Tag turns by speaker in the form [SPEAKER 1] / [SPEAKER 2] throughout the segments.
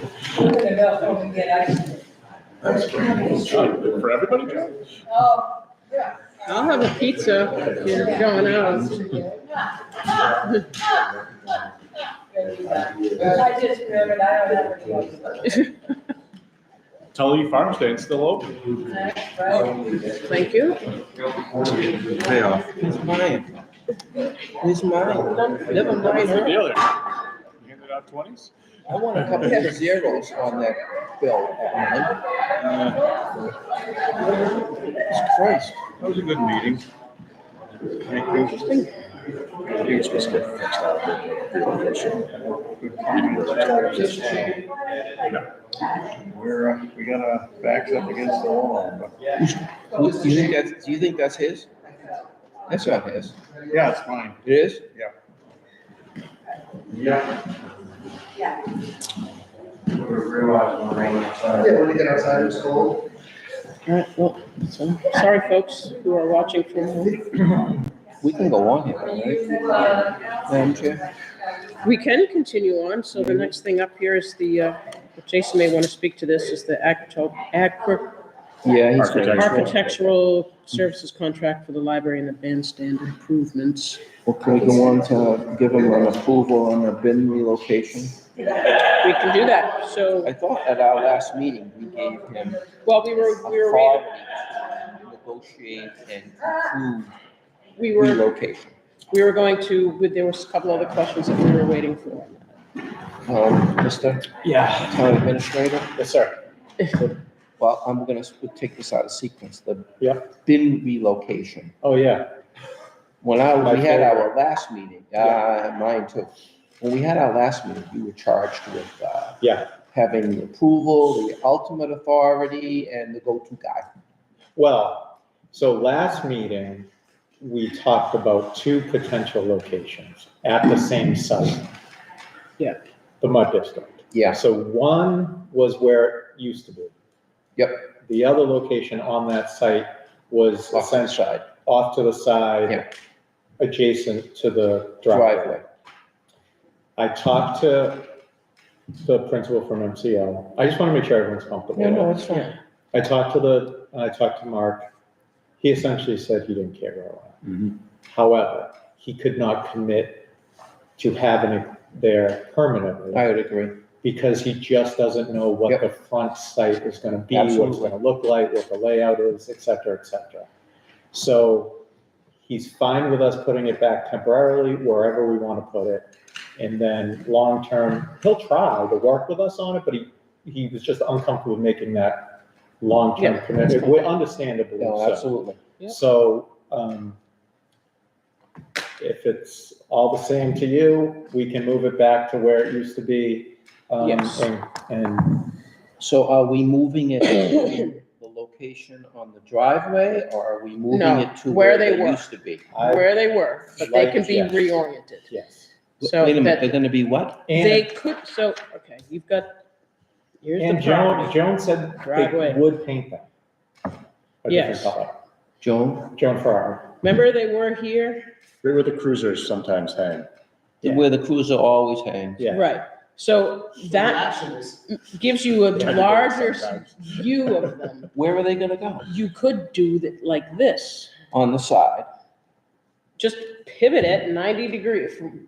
[SPEAKER 1] The bell phone again,
[SPEAKER 2] That's pretty cool.
[SPEAKER 3] For everybody, Joe?
[SPEAKER 1] I, oh, yeah.
[SPEAKER 4] I'll have a pizza if you're going out.
[SPEAKER 1] I just remembered, I don't have a choice.
[SPEAKER 3] Tully Farm Stand's still open.
[SPEAKER 1] Right?
[SPEAKER 4] Thank you.
[SPEAKER 2] Payoff.
[SPEAKER 5] It's mine. It's mine. Never mind.
[SPEAKER 3] What's the
[SPEAKER 5] her.
[SPEAKER 3] deal there? You handed out twenties?
[SPEAKER 5] I want a couple of zeros on that bill. man.
[SPEAKER 3] That
[SPEAKER 5] Jesus Uh, Christ.
[SPEAKER 3] was a good meeting.
[SPEAKER 5] Interesting.
[SPEAKER 2] We're, uh, we got our backs up against the wall. but-
[SPEAKER 5] Who- Do you think that's, do you think that's his? That's not his.
[SPEAKER 2] Yeah, it's fine.
[SPEAKER 5] It is?
[SPEAKER 6] Yeah, when you get outside, it's cold.
[SPEAKER 4] All right, well, so, sorry, folks who are watching from home.
[SPEAKER 5] We can go on here,
[SPEAKER 1] Were
[SPEAKER 5] right?
[SPEAKER 1] you, uh,
[SPEAKER 5] Madam Chair?
[SPEAKER 4] We can continue on, so the next thing up here is the, uh, Jason may want to speak to this, is the acto- acro-
[SPEAKER 5] Yeah, he's gonna.
[SPEAKER 4] architectural services contract for the library and the bandstand improvements.
[SPEAKER 5] Well, can we go on to give him an approval on the bin relocation?
[SPEAKER 4] We can do that, so,
[SPEAKER 5] I thought at our last meeting, we gave him
[SPEAKER 4] well, we were, we were,
[SPEAKER 5] authority to negotiate and approve
[SPEAKER 4] we were
[SPEAKER 5] relocation.
[SPEAKER 4] We were going to, with- there was a couple other questions that we were waiting for.
[SPEAKER 5] Um, Mr.
[SPEAKER 3] Yeah.
[SPEAKER 5] Town Administrator,
[SPEAKER 3] Yes, sir.
[SPEAKER 5] well, I'm gonna sp- take this out of sequence, the
[SPEAKER 3] Yeah.
[SPEAKER 5] bin relocation.
[SPEAKER 3] Oh, yeah.
[SPEAKER 5] When I,
[SPEAKER 3] My
[SPEAKER 5] we had
[SPEAKER 3] favorite.
[SPEAKER 5] our last meeting, uh, mine too, when we had our last meeting, you were charged with, uh,
[SPEAKER 3] Yeah.
[SPEAKER 5] having the approval, the ultimate authority, and the go-to guy.
[SPEAKER 7] Well, so last meeting, we talked about two potential locations at the same site.
[SPEAKER 4] Yeah.
[SPEAKER 7] The mud district.
[SPEAKER 5] Yes,
[SPEAKER 7] So one was where it used to be.
[SPEAKER 5] Yep.
[SPEAKER 7] The other location on that site was
[SPEAKER 5] off to the
[SPEAKER 7] essentially
[SPEAKER 5] side,
[SPEAKER 7] off to the
[SPEAKER 5] Yeah.
[SPEAKER 7] side, adjacent to the driveway.
[SPEAKER 5] driveway.
[SPEAKER 7] I talked to the principal from MCL. I just want to make sure everyone's comfortable.
[SPEAKER 5] Yeah, no, it's fine.
[SPEAKER 7] I talked to the, I talked to Mark. He essentially said he didn't care where it
[SPEAKER 2] Mhm.
[SPEAKER 5] Mm-hmm.
[SPEAKER 7] went. However, he could not commit to having it there
[SPEAKER 5] I
[SPEAKER 7] permanently
[SPEAKER 5] would agree.
[SPEAKER 7] because he just doesn't know
[SPEAKER 5] Yep.
[SPEAKER 7] what the front site is gonna be, what it's
[SPEAKER 5] Absolutely.
[SPEAKER 7] gonna look like, what the layout is, et cetera, et cetera. So he's fine with us putting it back temporarily wherever we want to put it. And then long-term, he'll try to work with us on it, but he, he was just uncomfortable making that
[SPEAKER 4] Yeah.
[SPEAKER 7] long-term commitment, we- understandably
[SPEAKER 5] No,
[SPEAKER 7] so.
[SPEAKER 5] absolutely.
[SPEAKER 4] Yep.
[SPEAKER 7] So, um, if it's all the same to you, we can move it back to where it used to be. um,
[SPEAKER 4] Yes.
[SPEAKER 7] And, and
[SPEAKER 5] So are we moving it to the location on the driveway, or are we moving
[SPEAKER 4] No,
[SPEAKER 5] it to
[SPEAKER 4] where
[SPEAKER 5] where
[SPEAKER 4] they
[SPEAKER 5] they
[SPEAKER 4] were.
[SPEAKER 5] used to be?
[SPEAKER 7] I,
[SPEAKER 4] Where they were, but they can be
[SPEAKER 7] Right, yes.
[SPEAKER 4] reoriented.
[SPEAKER 7] yes.
[SPEAKER 4] So
[SPEAKER 5] Wait a minute, they're
[SPEAKER 4] that
[SPEAKER 5] gonna be what?
[SPEAKER 4] they
[SPEAKER 7] And,
[SPEAKER 4] could, so, okay, you've got, here's the
[SPEAKER 7] and Joan,
[SPEAKER 4] property.
[SPEAKER 7] Joan said
[SPEAKER 4] Driveway.
[SPEAKER 7] they would paint them. a different
[SPEAKER 4] Yes.
[SPEAKER 7] color.
[SPEAKER 5] Joan,
[SPEAKER 7] Joan Farrar.
[SPEAKER 4] Remember they were here?
[SPEAKER 3] They were the cruisers sometimes hang.
[SPEAKER 7] Yeah.
[SPEAKER 5] where the cruiser always hangs.
[SPEAKER 7] Yeah.
[SPEAKER 4] Right. So that gives you a
[SPEAKER 3] Yeah.
[SPEAKER 4] larger
[SPEAKER 3] Sometimes.
[SPEAKER 4] view of them.
[SPEAKER 5] Where are they gonna go?
[SPEAKER 4] You could do that like this,
[SPEAKER 5] On the side.
[SPEAKER 4] just pivot it ninety degree, from-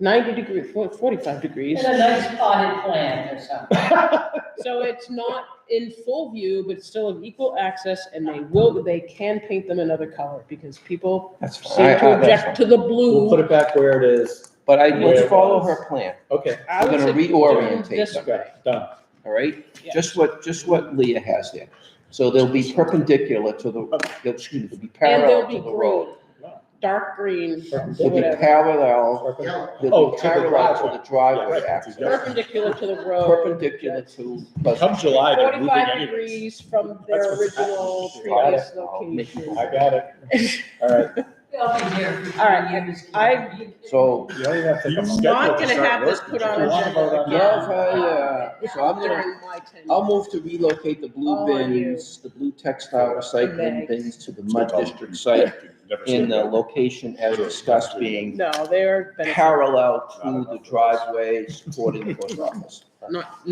[SPEAKER 4] ninety degree, for- forty-five degrees.
[SPEAKER 1] It's a nice potted plant or something.
[SPEAKER 4] So it's not in full view, but it's still of equal access and they will, they can paint them another color because people
[SPEAKER 5] That's
[SPEAKER 4] seem to object to the
[SPEAKER 7] We'll put
[SPEAKER 4] blue.
[SPEAKER 7] it back where it is.
[SPEAKER 5] But I,
[SPEAKER 7] Where
[SPEAKER 5] let's
[SPEAKER 7] it
[SPEAKER 5] follow
[SPEAKER 7] was.
[SPEAKER 5] her plan,
[SPEAKER 7] Okay,
[SPEAKER 4] I
[SPEAKER 5] we're
[SPEAKER 4] would
[SPEAKER 5] gonna
[SPEAKER 4] say do
[SPEAKER 5] reorientate
[SPEAKER 4] this
[SPEAKER 5] them.
[SPEAKER 7] okay,
[SPEAKER 4] way.
[SPEAKER 7] done.
[SPEAKER 5] all right?
[SPEAKER 4] Yeah.
[SPEAKER 5] Just what, just what Leah has there. So they'll be perpendicular to the, they'll, excuse me, they'll be
[SPEAKER 4] And they'll
[SPEAKER 5] parallel
[SPEAKER 4] be
[SPEAKER 5] to the road.
[SPEAKER 4] green, dark green,
[SPEAKER 5] They'll be
[SPEAKER 4] whatever.
[SPEAKER 5] parallel, they'll
[SPEAKER 7] Oh,
[SPEAKER 5] be
[SPEAKER 7] to the
[SPEAKER 5] parallel to the driveway
[SPEAKER 7] Yeah,
[SPEAKER 5] access.
[SPEAKER 4] perpendicular to the road.
[SPEAKER 5] Perpendicular to. Pleasant
[SPEAKER 3] Come July, they're moving
[SPEAKER 4] Forty-five
[SPEAKER 3] anyways.
[SPEAKER 4] degrees from
[SPEAKER 3] That's
[SPEAKER 4] their
[SPEAKER 3] what's happening.
[SPEAKER 4] original
[SPEAKER 7] Got
[SPEAKER 4] previous
[SPEAKER 5] I'll make you-
[SPEAKER 4] location.
[SPEAKER 7] I got it. All right.
[SPEAKER 1] All
[SPEAKER 4] All right, I-
[SPEAKER 5] So
[SPEAKER 7] You don't even have to.
[SPEAKER 3] You
[SPEAKER 7] come up.
[SPEAKER 3] scheduled
[SPEAKER 4] Not
[SPEAKER 3] to
[SPEAKER 4] gonna
[SPEAKER 3] start
[SPEAKER 4] have this
[SPEAKER 3] work,
[SPEAKER 4] put
[SPEAKER 3] but
[SPEAKER 4] on
[SPEAKER 3] you
[SPEAKER 4] our
[SPEAKER 3] wanna vote
[SPEAKER 4] agenda.
[SPEAKER 3] on that.
[SPEAKER 5] Yeah, I, uh, so I'm gonna,
[SPEAKER 4] During my tenure.
[SPEAKER 5] I'll move to relocate the
[SPEAKER 4] Oh,
[SPEAKER 5] blue bins, the blue textile recycling
[SPEAKER 4] Thanks.
[SPEAKER 5] bins to the mud
[SPEAKER 3] Tell them.
[SPEAKER 5] district site
[SPEAKER 3] Never said
[SPEAKER 5] in the
[SPEAKER 3] that.
[SPEAKER 5] location as discussed being
[SPEAKER 4] No, they're beneficial.
[SPEAKER 5] parallel to the driveway supporting the post office.
[SPEAKER 4] not,